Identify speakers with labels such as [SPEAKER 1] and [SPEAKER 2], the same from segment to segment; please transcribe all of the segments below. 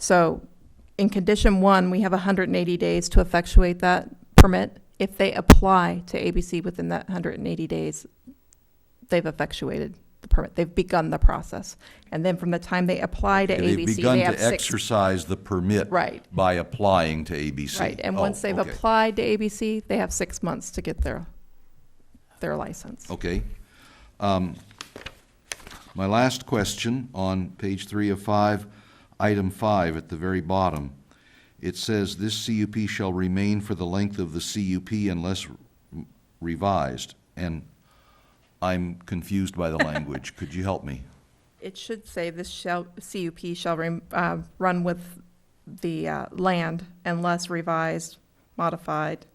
[SPEAKER 1] So in condition one, we have 180 days to effectuate that permit. If they apply to ABC within that 180 days, they've effectuated the permit. They've begun the process. And then from the time they apply to
[SPEAKER 2] They've
[SPEAKER 1] ABC,
[SPEAKER 2] begun
[SPEAKER 1] they
[SPEAKER 2] to
[SPEAKER 1] have six.
[SPEAKER 2] exercise the permit
[SPEAKER 1] Right,
[SPEAKER 2] by applying to ABC.
[SPEAKER 1] right. And
[SPEAKER 2] Oh,
[SPEAKER 1] once they've
[SPEAKER 2] okay.
[SPEAKER 1] applied to ABC, they have six months to get their, their license.
[SPEAKER 2] Okay. Um, My last question on page three of five, item five at the very bottom. It says, "This CUP shall remain for the length of the CUP unless revised." And I'm confused by the language. Could you help me?
[SPEAKER 1] It should say this shall, CUP shall rem- uh, run with the uh, land unless revised, modified.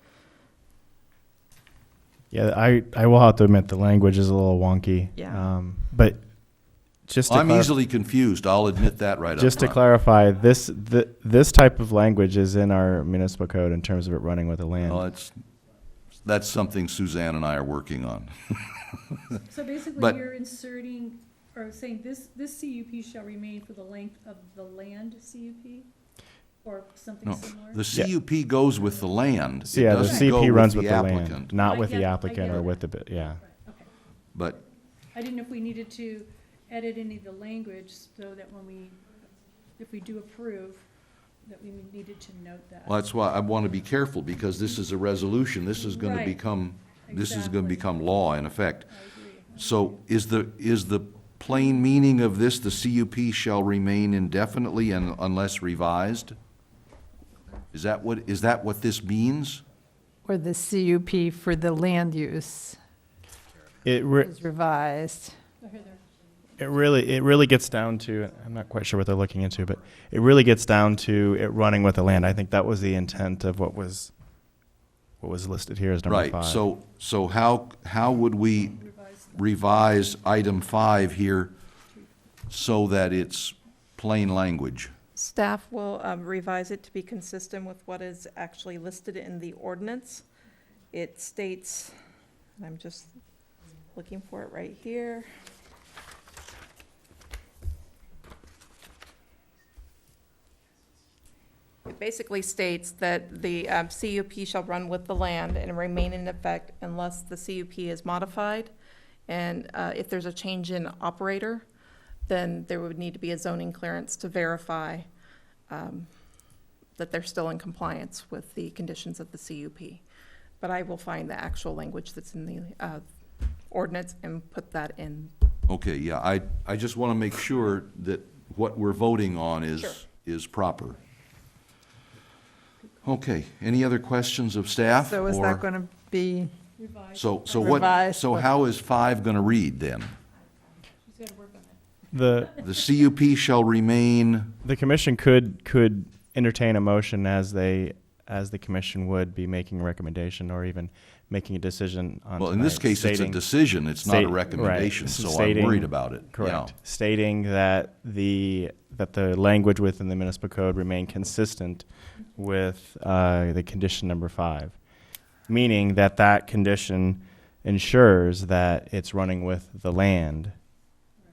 [SPEAKER 3] Yeah, I, I will have to admit the language is a little wonky.
[SPEAKER 1] Yeah.
[SPEAKER 3] Um, but just to
[SPEAKER 2] I'm
[SPEAKER 3] clar-
[SPEAKER 2] easily confused. I'll admit that right up
[SPEAKER 3] just to
[SPEAKER 2] front.
[SPEAKER 3] clarify, this th- this type of language is in our municipal code in terms of it running with the land.
[SPEAKER 2] Well, Oh, it's, that's something Suzanne and I are working on.
[SPEAKER 4] So basically,
[SPEAKER 2] But-
[SPEAKER 4] you're inserting, or saying this, this CUP shall remain for the length of the land CUP? Or something
[SPEAKER 2] No,
[SPEAKER 4] similar?
[SPEAKER 2] the
[SPEAKER 3] Yeah.
[SPEAKER 2] CUP goes with the land. It
[SPEAKER 3] so yeah, the
[SPEAKER 2] doesn't
[SPEAKER 3] CP
[SPEAKER 2] go
[SPEAKER 3] runs with the land,
[SPEAKER 2] applicant.
[SPEAKER 3] not
[SPEAKER 4] I
[SPEAKER 3] with
[SPEAKER 4] get-
[SPEAKER 3] the
[SPEAKER 4] I
[SPEAKER 3] applicant
[SPEAKER 4] get
[SPEAKER 3] or
[SPEAKER 4] it.
[SPEAKER 3] with the bu- yeah.
[SPEAKER 4] Right, okay.
[SPEAKER 2] But
[SPEAKER 4] I didn't know if we needed to edit any of the language so that when we, if we do approve, that we needed to note that.
[SPEAKER 2] Well, that's why I want to be careful, because this is a resolution, this is going to
[SPEAKER 4] Right.
[SPEAKER 2] become, this is going to
[SPEAKER 4] Exactly.
[SPEAKER 2] become law in effect.
[SPEAKER 4] I agree.
[SPEAKER 2] So is the, is the plain meaning of this, the CUP shall remain indefinitely and unless revised? Is that what, is that what this means?
[SPEAKER 5] Or the CUP for the land use
[SPEAKER 3] It re-
[SPEAKER 5] is revised.
[SPEAKER 4] Oh, here they're-
[SPEAKER 3] it really it really gets down to I'm not quite sure what they're looking into, but it really gets down to it running with the land. I think that was the intent of what was what was listed here as number
[SPEAKER 2] Right,
[SPEAKER 3] five.
[SPEAKER 2] so, so how, how would we revise item five here so that it's plain language?
[SPEAKER 1] Staff will um, revise it to be consistent with what is actually listed in the ordinance. It states, and I'm just looking for it right here. It basically states that the um, CUP shall run with the land and remain in effect unless the CUP is modified. And uh, if there's a change in operator, then there would need to be a zoning clearance to verify um, that they're still in compliance with the conditions of the CUP. But I will find the actual language that's in the uh, ordinance and put that in.
[SPEAKER 2] Okay, yeah, I, I just want to make sure that what we're voting on
[SPEAKER 1] Sure.
[SPEAKER 2] is, is proper. Okay, any other questions of staff?
[SPEAKER 5] So is
[SPEAKER 2] or-
[SPEAKER 5] that going to be,
[SPEAKER 4] Revise,
[SPEAKER 2] So, so what,
[SPEAKER 5] Revised,
[SPEAKER 2] so
[SPEAKER 5] but-
[SPEAKER 2] how is five going to read then?
[SPEAKER 4] she's gotta work on it.
[SPEAKER 3] the
[SPEAKER 2] The CUP shall remain,
[SPEAKER 3] The commission could could entertain a motion as they as the commission would be making a recommendation or even making a decision on.
[SPEAKER 2] well, in this
[SPEAKER 3] tonight,
[SPEAKER 2] case, it's a
[SPEAKER 3] stating-
[SPEAKER 2] decision, it's not
[SPEAKER 3] state-
[SPEAKER 2] a
[SPEAKER 3] right,
[SPEAKER 2] recommendation, so I'm
[SPEAKER 3] stating-
[SPEAKER 2] worried about it.
[SPEAKER 3] Correct.
[SPEAKER 2] Yeah.
[SPEAKER 3] Stating that the that the language within the municipal code remain consistent with uh, the condition number five, meaning that that condition ensures that it's running with the land,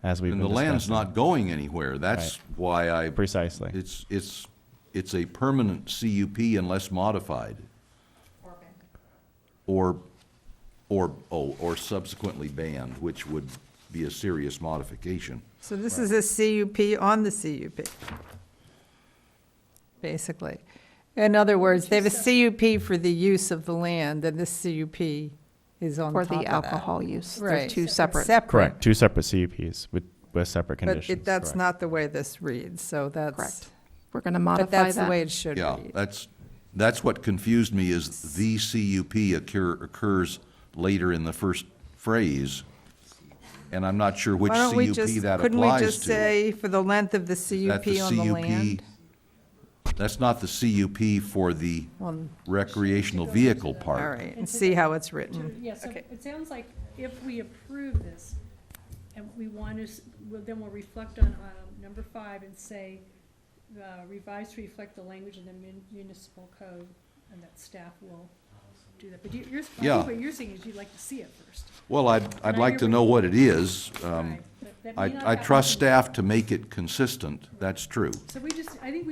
[SPEAKER 3] as we've
[SPEAKER 2] And the
[SPEAKER 3] been
[SPEAKER 2] land's
[SPEAKER 3] discussing.
[SPEAKER 2] not going anywhere, that's why I,
[SPEAKER 3] precisely.
[SPEAKER 2] it's, it's, it's a permanent CUP unless modified. Or, or, oh, or subsequently banned, which would be a serious modification.
[SPEAKER 5] so this is a CUP on the CUP, basically. In other words, they have a CUP for the use of the land, and this CUP is on top
[SPEAKER 1] For
[SPEAKER 5] of that.
[SPEAKER 1] the alcohol use, they're
[SPEAKER 5] Right.
[SPEAKER 1] two separate.
[SPEAKER 3] Correct. Two separate CUPs with with separate
[SPEAKER 5] But
[SPEAKER 3] conditions.
[SPEAKER 5] it- that's
[SPEAKER 3] correct.
[SPEAKER 5] not the way this reads, so that's,
[SPEAKER 1] Correct. We're going to
[SPEAKER 5] but
[SPEAKER 1] modify
[SPEAKER 5] that's the way
[SPEAKER 1] that.
[SPEAKER 5] it should
[SPEAKER 2] Yeah,
[SPEAKER 5] read.
[SPEAKER 2] that's, that's what confused me is the CUP occur, occurs later in the first phrase. And I'm not sure which
[SPEAKER 5] Why don't we
[SPEAKER 2] CUP
[SPEAKER 5] just,
[SPEAKER 2] that applies to.
[SPEAKER 5] couldn't we just say for the length of the
[SPEAKER 2] That
[SPEAKER 5] CUP on the land?
[SPEAKER 2] CUP That's not the CUP for the
[SPEAKER 5] Well,
[SPEAKER 2] recreational vehicle
[SPEAKER 5] All
[SPEAKER 2] part.
[SPEAKER 5] right, and see how it's
[SPEAKER 4] To-
[SPEAKER 5] written.
[SPEAKER 4] Yeah, so
[SPEAKER 1] Okay.
[SPEAKER 4] it sounds like if we approve this, and we want to, s- we'll- then we'll reflect on um, number five and say, uh, revise to reflect the language in the mun- municipal code, and that staff will do that. But you- you're, I
[SPEAKER 2] Yeah.
[SPEAKER 4] think what you're saying is you'd like to see it first.
[SPEAKER 2] Well, I'd, I'd like to know what it is. Um,
[SPEAKER 4] Right, but that may not
[SPEAKER 2] I, I
[SPEAKER 4] happen.
[SPEAKER 2] trust staff to make it consistent, that's true.
[SPEAKER 4] So we just, I think we